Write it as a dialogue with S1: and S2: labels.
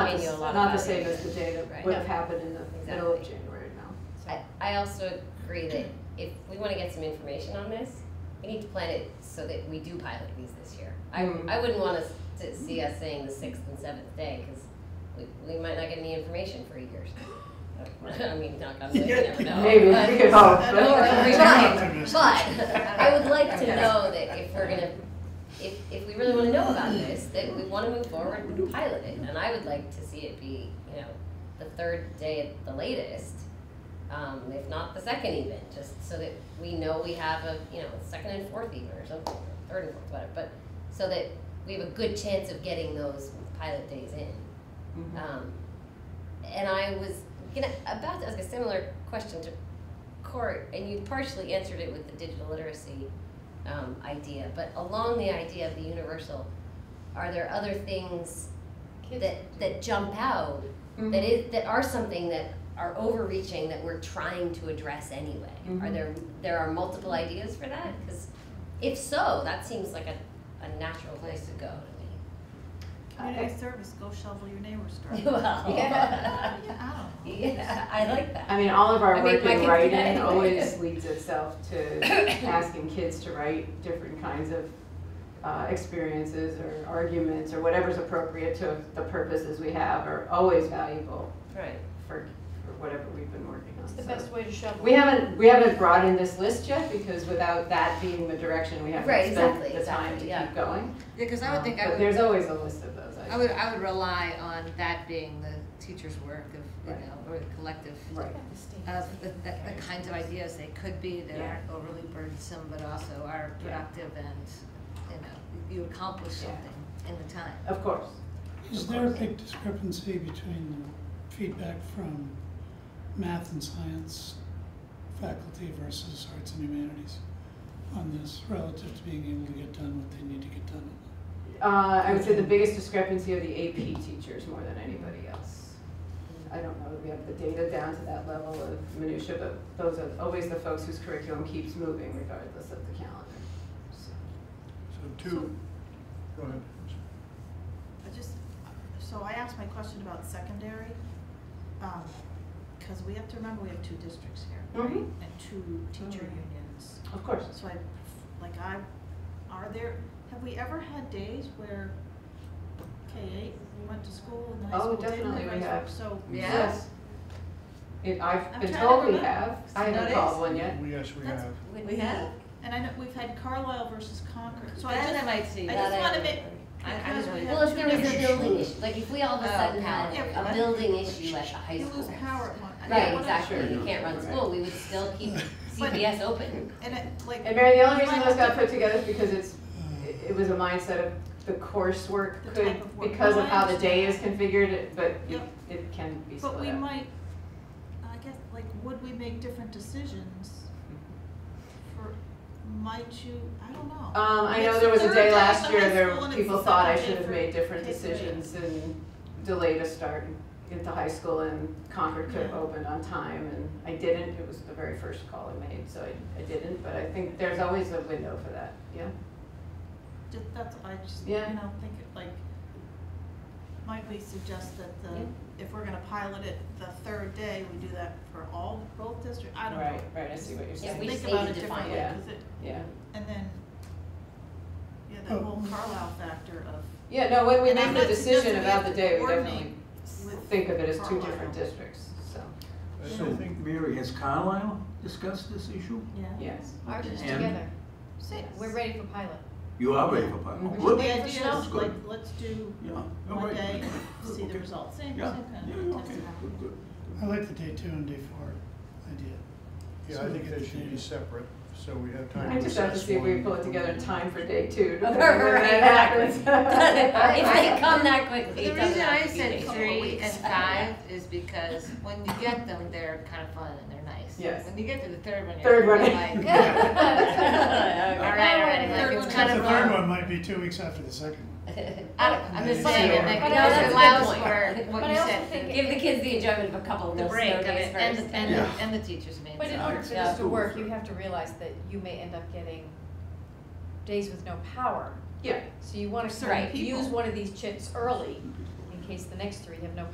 S1: the-
S2: video a
S1: Not
S2: lot
S1: the
S2: about
S1: same
S2: it.
S1: as the day that
S2: Right.
S1: would have happened in the middle of
S2: Exactly.
S1: January now.
S2: I, I also agree that if we wanna get some information on this, we need to plan it so that we do pilot these this year. I,
S1: Mm.
S2: I wouldn't want us to see us saying the sixth and seventh day, cause we, we might not get any information for years. I mean, knock on wood, you never know.
S1: Maybe, Oh,
S2: but-
S1: we could hope.
S2: Or we
S3: Right.
S2: might, but I would like to
S1: Okay.
S2: know that if we're gonna, if, if we really wanna know about this, that we wanna move forward and pilot it. And I would like to see it be, you know, the third day at the latest, um, if not the second even, just so that we know we have a, you know, second and fourth even or something, or third and fourth, whatever, but so that we have a good chance of getting those pilot days in.
S1: Mhm.
S2: Um, and I was gonna, about to ask a similar question to Court, and you partially answered it with the digital literacy um, idea, but along the idea of the universal, are there other things that, that jump out
S3: Mm-hmm.
S1: Mm.
S2: that is that are something that are overreaching that we're trying to address anyway? Are
S3: Mm-hmm.
S1: Mhm.
S2: there there are multiple ideas for that? Because if so, that seems like a, a natural place to go to
S3: Community service, go shovel your neighbor's
S2: me.
S3: driveway.
S2: Well,
S3: Yeah, I don't know.
S2: Yeah, I like that.
S1: I mean, all of
S2: I
S1: our
S2: mean,
S1: work
S2: my kids
S1: in
S2: do that
S1: writing
S2: anyway.
S1: always leads itself to asking kids to write different kinds of uh, experiences or arguments or whatever's appropriate to the purposes we have are always valuable
S2: Right.
S1: for, for whatever we've been working on.
S3: It's the
S1: So-
S3: best way to shovel.
S1: We haven't, we haven't brought in this list yet because without that being the direction, we
S2: Right,
S1: haven't spent
S2: exactly,
S1: the time to
S2: exactly, yeah.
S1: keep going.
S4: Yeah, because I would
S1: Um,
S4: think
S1: but
S4: I would,
S1: there's always a list of those.
S4: I would, I would rely on that being the teacher's work of, you
S1: Right.
S4: know, or the collective
S1: Right.
S4: of the, the, the kinds of ideas they could be that
S1: Yeah.
S4: aren't overly burdensome, but also are
S1: Yeah.
S4: productive and, you know, you accomplish
S1: Yeah.
S4: something in the time.
S1: Of course.
S5: Is there a big discrepancy between the feedback from math and science faculty versus arts and humanities on this relative to being able to get done what they need to get done?
S1: Uh, I would say the biggest discrepancy are the AP teachers more than anybody else. I don't know that we have the data down to that level of minutia, but those are always the folks whose curriculum keeps moving regardless of the calendar. So,
S6: So two, go ahead.
S3: I just, so I asked my question about secondary, um, cause we have to remember we have two districts here, right?
S1: Mhm.
S3: And two teacher
S1: Mhm.
S3: unions.
S1: Of course.
S3: So I, like I, are there, have we ever had days where K eight went to school and the high
S1: Oh,
S3: school didn't?
S1: definitely
S3: and
S1: we
S3: vice
S1: have.
S3: versa? So,
S4: Yeah.
S1: Yes. It, I've been
S3: I'm trying to
S1: told we
S3: remember.
S1: have. I haven't
S4: Notice?
S1: called one yet.
S6: We- Yes, we
S3: That's-
S6: have.
S4: We have?
S3: and I know, we've had Carlisle versus Concord, so I just.
S4: That I might see.
S3: I
S2: That
S3: just
S2: I
S3: wanna
S2: don't
S3: make,
S2: know.
S4: I, I just
S3: because we
S4: wanted.
S3: have
S2: Well, if there was
S3: two
S2: a
S3: different-
S2: building issue, like if we all of a
S4: Oh,
S2: sudden had
S3: yeah.
S2: a building issue at the high
S3: You lose
S2: school.
S3: power at one. I
S2: Right,
S3: wanna-
S2: exactly,
S6: Sure,
S2: you can't run
S1: right.
S2: school, we would still keep
S3: But-
S2: CPS open.
S3: And it, like.
S1: And Mary, the only
S3: we
S1: reason
S3: might
S1: those
S3: have
S1: got
S3: to-
S1: put together is because it's,
S5: Uh,
S1: it it was a mindset of the coursework
S3: The
S1: could,
S3: type of work.
S1: because
S3: No,
S1: of
S3: I
S1: how the day is
S3: understand.
S1: configured, it- but it,
S3: Yep.
S1: it can be split
S3: But
S1: up.
S3: we might, I guess, like, would we make different decisions for, might you, I don't know.
S1: Um, I
S3: It's
S1: know there was a
S3: third
S1: day
S3: at
S1: last
S3: the
S1: year,
S3: high
S1: there,
S3: school and it's
S1: people
S3: the
S1: thought I
S3: second
S1: should
S3: day
S1: have
S3: for
S1: made different
S3: K three.
S1: decisions and delayed a start into high school and Concord could have
S3: Yeah.
S1: opened on time and I didn't, it was the very first call I made, so I, I didn't, but I think there's always a window for that, yeah.
S3: Ju- That's, I just, you
S1: Yeah.
S3: know, think it, like, might we suggest that the, if we're gonna pilot it the third day, we do that for all, both districts, I don't know.
S1: Right, right, I see what you're
S2: Yeah,
S1: saying,
S2: we just
S3: Think
S2: need
S3: about
S2: to
S3: it
S2: define
S3: differently,
S1: it.
S3: 'cause it,
S1: yeah.
S3: and then, yeah, that
S5: Oh.
S3: whole Carlisle factor of
S1: Yeah, no, when we
S3: And I'm
S1: make the
S3: not suggesting
S1: decision
S3: we
S1: about
S3: have
S1: the
S3: to
S1: day, we
S3: coordinate
S1: definitely
S3: with
S1: think of it as two
S3: Carlisle.
S1: different districts, so,
S6: I-
S7: So,
S6: I think,
S7: Mary, has Carlisle discussed this issue?
S3: Yeah.
S1: yes.
S7: Ours is And-
S8: together.
S7: together.
S3: Yes.
S8: We're ready for pilot.
S7: You are ready for pilot?
S1: Mhm.
S7: Good.
S3: The idea is
S7: That's
S3: like,
S7: good.
S3: let's do
S7: Yeah. No,
S3: one
S7: wait.
S3: day, see the
S7: Okay.
S3: results, same, same
S7: Yeah,
S3: kind
S7: yeah,
S3: of
S7: okay,
S3: testing.
S7: good, good.
S5: I like the day two and day four idea.
S6: yeah, I think they should be separate, so we have time to
S1: I just have to
S6: assess
S1: see if we
S6: one.
S1: pull it together in time for day two. depending on when
S2: Right,
S1: that happens.
S2: If they come that quickly,
S4: The
S2: it doesn't
S4: reason I
S2: have to be
S4: said
S2: days.
S4: three and five is because when you get them, they're kind of fun and they're nice.
S1: Yes.
S4: When you get to the third one,
S1: Third
S4: you're
S1: one.
S4: like, all right, already,
S3: Third
S4: like,
S3: one.
S4: it's kind
S5: The
S4: of
S5: third
S4: long.
S5: one might be two weeks after the second one.
S4: I don't, I'm just
S5: But I
S4: saying,
S5: also-
S4: that
S5: But
S4: it
S5: I
S4: also
S5: also
S4: allows
S2: think-
S4: for
S8: but
S4: what
S8: I
S4: you
S8: also
S4: said,
S8: think
S4: the-
S2: Give the kids the enjoyment of a couple of
S4: the
S2: those
S4: break of
S2: days
S4: it, and,
S2: first.
S4: the- and, the-
S7: Yeah.
S4: and the teachers made
S8: But in
S7: Yeah,
S8: order
S7: it's
S8: for this to
S7: absolutely
S8: work, you
S7: fair.
S8: have to realize that you may end up getting days with no power.
S1: Yeah.
S8: So you wanna
S3: certain
S8: use
S3: people.
S8: one of these chips early in case the next three have no